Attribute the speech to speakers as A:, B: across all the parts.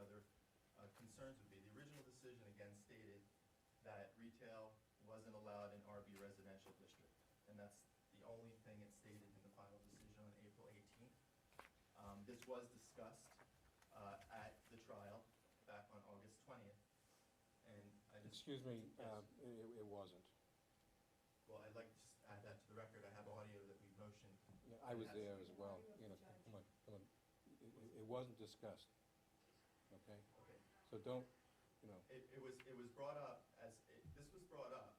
A: uh, again stated that retail wasn't allowed in RB residential district. And that's the only thing it stated in the final decision on April eighteenth. Um, this was discussed, uh, at the trial back on August twentieth. And I just.
B: Excuse me,
A: Yes.
B: uh, it, it wasn't.
A: Well, I'd like to just add that to the record. I have audio that we motioned.
B: Yeah, I was
A: Yes.
B: there as well, you know, come on, come on. It- It, it wasn't discussed, okay?
A: Okay.
B: So don't, you know,
A: It, it was, it was brought up as, it, this was brought up.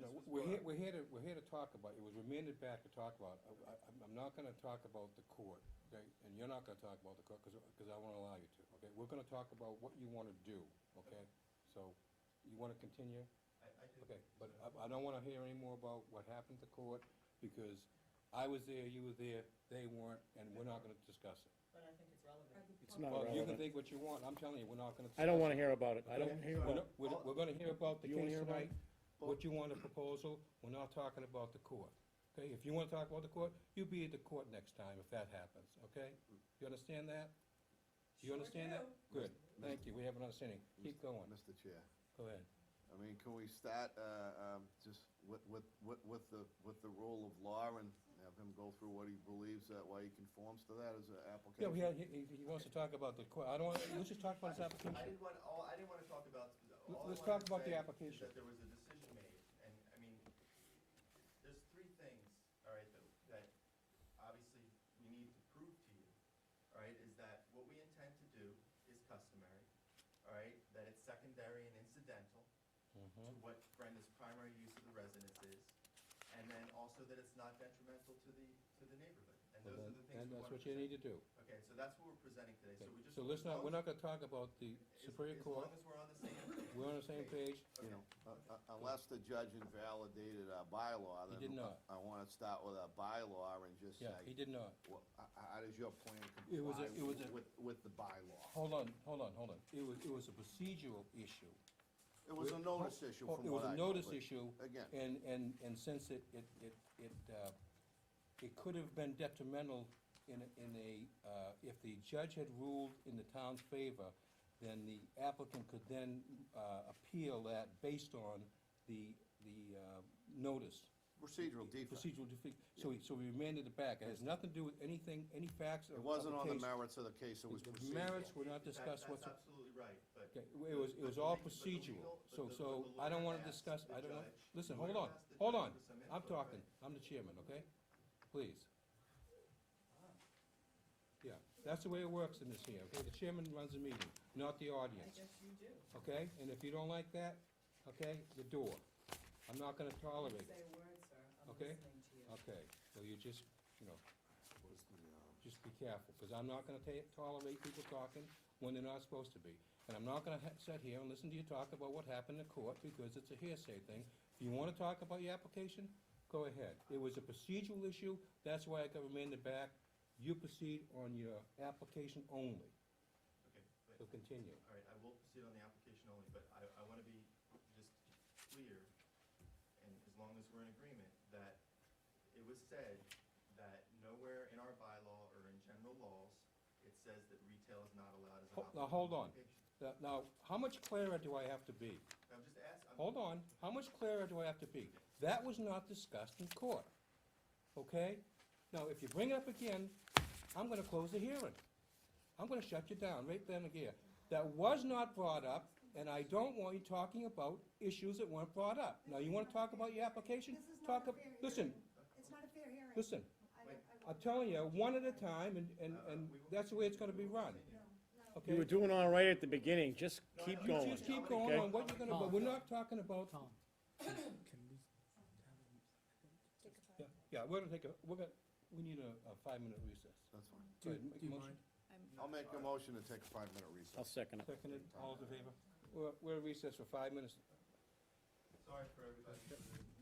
B: you know,
A: This was
B: we're
A: brought
B: here,
A: up.
B: we're here to, we're here to talk about, it was remanded back to talk about. I, I, I'm not gonna talk about the court, okay? And you're not gonna talk about the court, cause, 'cause I won't allow you to, okay? We're gonna talk about what you wanna do, okay?
A: Okay.
B: So, you wanna continue?
A: I, I did.
B: Okay, but I, I don't wanna hear any more about what happened to court, because I was there, you were there, they weren't, and we're not gonna discuss it.
C: But I think it's relevant.
D: It's not
B: Well, you can
D: relevant.
B: think what you want, I'm telling you, we're not gonna.
D: I don't wanna
B: discuss
D: hear about it. I don't
B: Okay?
D: hear
B: We're
D: about
B: not-
D: it.
B: We're, we're gonna hear about the
D: You wanna
B: case
D: hear about it?
B: tonight, what you want, a proposal, we're not talking about the court. Okay, if you wanna talk about the court, you be at the court next time if that happens, okay? You understand that? Do you
C: Sure
B: understand that?
C: do.
B: Good, thank you, we have an understanding, keep going,
E: Mr. Chair,
B: go ahead.
E: I mean, can we start, uh, um, just with, with, with, with the, with the rule of law and have him go through what he believes that, why he conforms to that as an
B: Yeah,
E: application?
B: he, he, he wants to talk about the court, I don't, wanna- let's just talk about this
A: I
B: application.
A: didn't want, all, I didn't wanna talk about, all I
B: Let's
A: wanted
B: talk
A: to
B: about the
A: say is
B: application.
A: that there was a decision made, and, I mean, there's three things, all right, that, that obviously we need to prove to you, all right, is that what we intend to do is customary, all right, that it's secondary and incidental, to
B: Mhm.
A: what Brenda's primary use of the residence is, and then also that it's not detrimental to the, to the neighborhood. And
B: Well,
A: those are
B: then-
A: the things
B: And
A: we
B: that's
A: want
B: what you need to do.
A: Okay, so that's what we're presenting today, so we just.
B: So let's not, we're not gonna talk about the
A: As-
B: Superior
A: As
B: Court,
A: long as we're on the same.
B: we're on the same page,
E: You know, uh, uh, unless the judge invalidated our bylaw,
B: He
E: then.
B: did not.
E: I wanna start with our bylaw and just
B: yeah, he
E: say,
B: did not.
E: well, h- how does your plan
B: It was a- it was
E: comply
B: a-
E: with, with the bylaw?
B: Hold on, hold on, hold on. It was, it was a procedural issue.
E: It was a notice issue from
B: It
E: what
B: was
E: I.
B: a
E: know,
B: notice
E: but
B: issue.
E: Again.
B: And, and, and since it, it, it, it, uh, it could have been detrimental in, a- in a, uh, if the judge had ruled in the town's favor, then the applicant could then, uh, appeal that based on the, the, uh, notice.
E: Procedural defect.
B: Procedural defect. So, we- so we remanded it back. It has nothing to do with anything, any facts or.
E: It wasn't on the
B: case.
E: merits of the case, it was
B: The
E: procedural.
B: merits were not
A: That-
B: discussed
A: That's
B: whatsoever.
A: absolutely right, but.
B: Okay, it was, it was all procedural, so, so I don't wanna discuss, I don't wanna, listen, hold on, hold on, I'm talking, I'm the chairman, okay? Please. Yeah, that's the way it works in this here, okay, the chairman runs the meeting, not the
C: I
B: audience,
C: guess you do.
B: okay? And if you don't like that, okay, the door, I'm not gonna
C: Don't
B: tolerate
C: Say
B: it,
C: a word, sir. I'm
B: Okay.
C: listening to you.
B: okay? So you just, you know, just be careful, because I'm not gonna ta- tolerate people talking when they're not supposed to be. And I'm not gonna ha- sit here and listen to you talk about what happened in court, because it's a hearsay thing. If you wanna talk about your application, go ahead. It was a procedural issue, that's why I got remanded back. You proceed on your application only,
A: Okay, but-
B: so continue.
A: All right, I will proceed on the application only, but I, I want to be just clear, and as long as we're in agreement, that it was said that nowhere in our bylaw or in general laws, it says that retail is not allowed as an
B: Ho-
A: operating
B: Now, hold on.
A: location.
B: Now- Now, how much clearer do I have to be?
A: I'm just asking.
B: Hold on, how much clearer do I have to be? That was not discussed in court, okay? Now, if you bring it up again, I'm gonna close the hearing. I'm gonna shut you down right then and there. That was not brought up, and I don't want you talking about issues that weren't brought up. Now, you wanna talk about your application?
F: This is not
B: Talk,
F: a
B: ab-
F: fair hearing.
B: listen,
F: It's not a fair hearing.
B: listen,
F: I don't- I
B: I'm
F: won't-
B: telling you, one at a time, and, and,
A: Uh, we
B: and
A: will-
B: that's the way it's gonna be
A: we will
B: run,
A: continue.
F: No, no.
B: okay?
D: You were doing all right at the beginning, just
A: No, I
D: keep
A: know.
B: You
D: going.
B: just keep going
D: okay?
B: on what you're gonna, but we're not talking about
C: Tom, can we?
B: Yeah, yeah, we're gonna take a, we're gonna, we need a, a five-minute recess.
E: That's fine.
B: Go ahead, make a motion.
E: I'll make a motion to take a five-minute recess.
D: I'll second it.
B: Seconded, all those in favor? We're, we're recessed for five minutes.
A: Sorry for everybody.